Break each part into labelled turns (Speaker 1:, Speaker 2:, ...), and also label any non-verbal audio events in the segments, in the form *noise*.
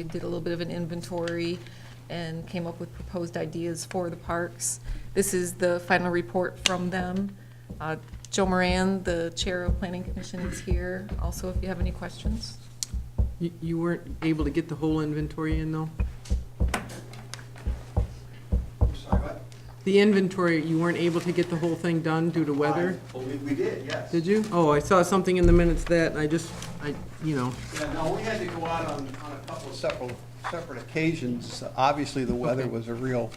Speaker 1: We did a little bit of an inventory and came up with proposed ideas for the parks. This is the final report from them. Uh, Joe Moran, the Chair of Planning Commission, is here. Also, if you have any questions.
Speaker 2: You- You weren't able to get the whole inventory in, though?
Speaker 3: I'm sorry, what?
Speaker 2: The inventory, you weren't able to get the whole thing done due to weather?
Speaker 3: I believe we did, yes.
Speaker 2: Did you? Oh, I saw something in the minutes that, I just, I, you know,
Speaker 3: Yeah, no, we had to go out on, on a couple of separate, separate occasions. Obviously, the weather was a real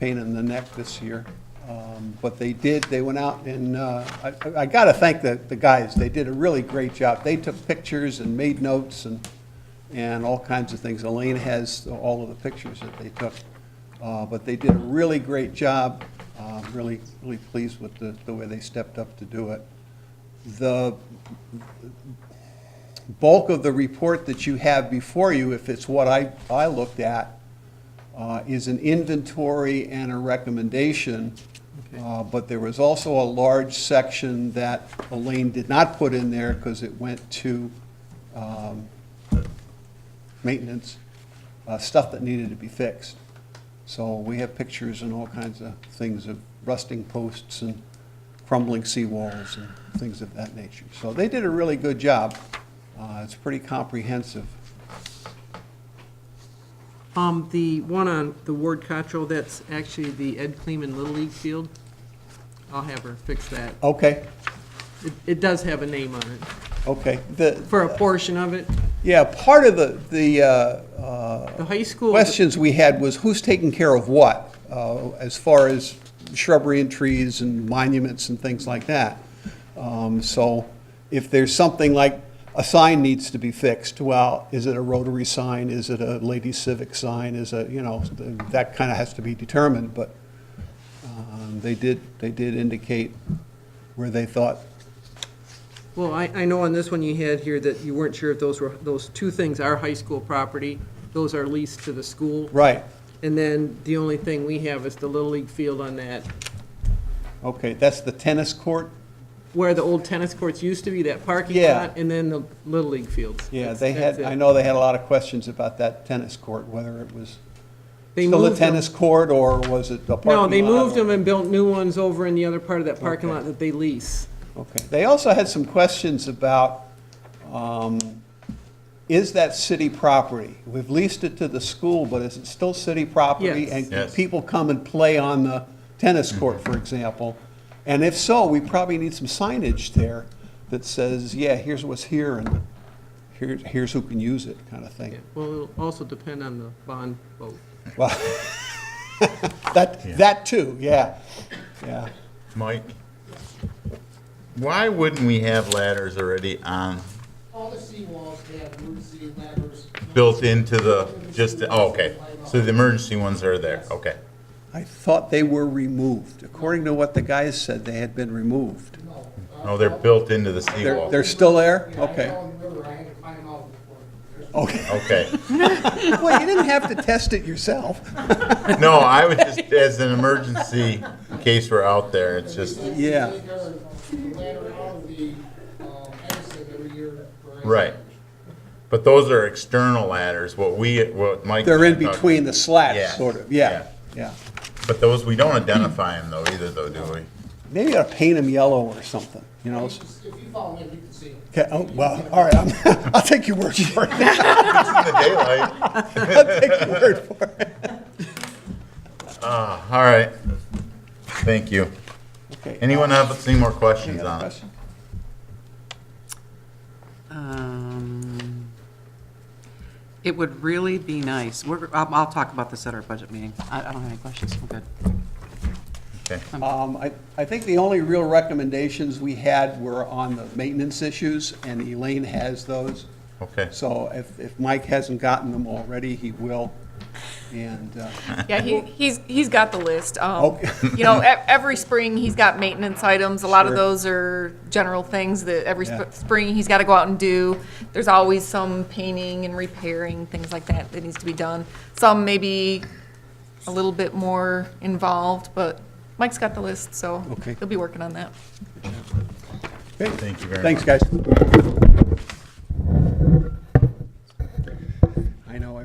Speaker 3: pain in the neck this year. Um, But they did, they went out and, uh, I, I gotta thank the, the guys. They did a really great job. They took pictures and made notes and, and all kinds of things. Elaine has all of the pictures that they took. Uh, But they did a really great job. Uh, Really, really pleased with the, the way they stepped up to do it. The bulk of the report that you have before you, if it's what I, I looked at, uh, is an inventory and a recommendation. Uh, But there was also a large section that Elaine did not put in there because it went to um, maintenance, uh, stuff that needed to be fixed. So we have pictures and all kinds of things of rusting posts and crumbling seawalls and things of that nature. So they did a really good job. Uh, It's pretty comprehensive.
Speaker 2: um, the one on the Ward Cottrell, that's actually the Ed Kleeman Little League Field. I'll have her fix that.
Speaker 3: Okay,
Speaker 2: It, it does have a name on it,
Speaker 3: okay. The,
Speaker 2: for a portion of it.
Speaker 3: yeah, part of the, the uh, uh,
Speaker 2: The high school,
Speaker 3: questions we had was who's taking care of what, uh, as far as shrubbery and trees and monuments and things like that. Um, So if there's something like, a sign needs to be fixed, well, is it a rotary sign, is it a lady civic sign, is it, you know, that kind of has to be determined, but um, they did, they did indicate where they thought
Speaker 2: well, I, I know on this one you had here that you weren't sure if those were, those two things are high school property. Those are leased to the school.
Speaker 3: Right,
Speaker 2: And then the only thing we have is the Little League field on that,
Speaker 3: okay, that's the tennis court?
Speaker 2: where the old tennis courts used to be, that parking
Speaker 3: Yeah.
Speaker 2: lot, and then the Little League fields.
Speaker 3: Yeah,
Speaker 2: That's-
Speaker 3: they
Speaker 2: that's
Speaker 3: had,
Speaker 2: it.
Speaker 3: I know they had a lot of questions about that tennis court, whether it was
Speaker 2: They
Speaker 3: still a
Speaker 2: moved them.
Speaker 3: tennis court or was it a parking lot?
Speaker 2: No, they moved them
Speaker 3: or-
Speaker 2: and built new ones over in the other part of that parking
Speaker 3: Okay.
Speaker 2: lot that they lease.
Speaker 3: Okay, they also had some questions about, um, is that city property? We've leased it to the school, but is it still city property?
Speaker 2: Yes.
Speaker 3: And can
Speaker 4: Yes.
Speaker 3: people come and play on the tennis court, for example? And if so, we probably need some signage there that says, yeah, here's what's here and here, here's who can use it, kind of
Speaker 2: Yeah,
Speaker 3: thing.
Speaker 2: Well, it'll also depend on the bond vote.
Speaker 3: Well, that, that too, yeah, yeah.
Speaker 4: Mike, why wouldn't we have ladders already on,
Speaker 5: All the seawalls have roof Z ladders.
Speaker 4: built into the, just, oh, okay. So the emergency ones are there, okay.
Speaker 3: I thought they were removed. According to what the guys said, they had been removed.
Speaker 5: No. uh,
Speaker 4: No, they're built into the
Speaker 3: They're,
Speaker 4: seawall.
Speaker 3: they're still there?
Speaker 5: Yeah, I
Speaker 3: Okay.
Speaker 5: fell in the river, I had to climb out before. There's
Speaker 3: Okay.
Speaker 4: Okay.
Speaker 3: *laughs* Well, you didn't have to test it yourself.
Speaker 4: No, I would just, as an emergency, in case we're out there, it's just,
Speaker 3: Yeah.
Speaker 5: They take our ladder out of the, um, exit every year. for ice
Speaker 4: Right.
Speaker 5: damage.
Speaker 4: but those are external ladders, what we, what Mike.
Speaker 3: They're in between the slats,
Speaker 4: Yeah.
Speaker 3: sort of, yeah, yeah.
Speaker 4: But those, we don't identify them though either though, do we?
Speaker 3: Maybe you ought to paint them yellow or something, you
Speaker 5: You
Speaker 3: know?
Speaker 5: just- If you follow me, you can see them.
Speaker 3: Okay, oh, well, all right, I'm- *laughs* I'll take your word for it.
Speaker 4: In the daylight.
Speaker 3: *laughs* I'll take your word for it.
Speaker 4: Ah, all right. Thank you.
Speaker 3: *laughs* Okay, Uh,
Speaker 4: Anyone have any more
Speaker 3: any
Speaker 4: questions
Speaker 3: other
Speaker 4: on it?
Speaker 3: question?
Speaker 6: Um, It would really be nice, we're, I'll, I'll talk about this at our budget meeting. I, I don't have any questions, I'm good.
Speaker 4: Okay.
Speaker 3: Um, I, I think the only real recommendations we had were on the maintenance issues, and Elaine has those.
Speaker 4: Okay.
Speaker 3: So if, if Mike hasn't gotten them already, he will. And, uh,
Speaker 1: Yeah, he, he's, he's got the list. Um,
Speaker 3: Okay.
Speaker 1: you know, e- every spring, he's got maintenance items. A lot of
Speaker 3: Sure.
Speaker 1: those are general things that every
Speaker 3: Yeah.
Speaker 1: sp- spring he's got to go out and do. There's always some painting and repairing, things like that, that needs to be done. Some maybe a little bit more involved, but Mike's got the list, so
Speaker 3: Okay.
Speaker 1: he'll be working on that.
Speaker 3: okay.
Speaker 4: Thank you very much.
Speaker 3: thanks, guys.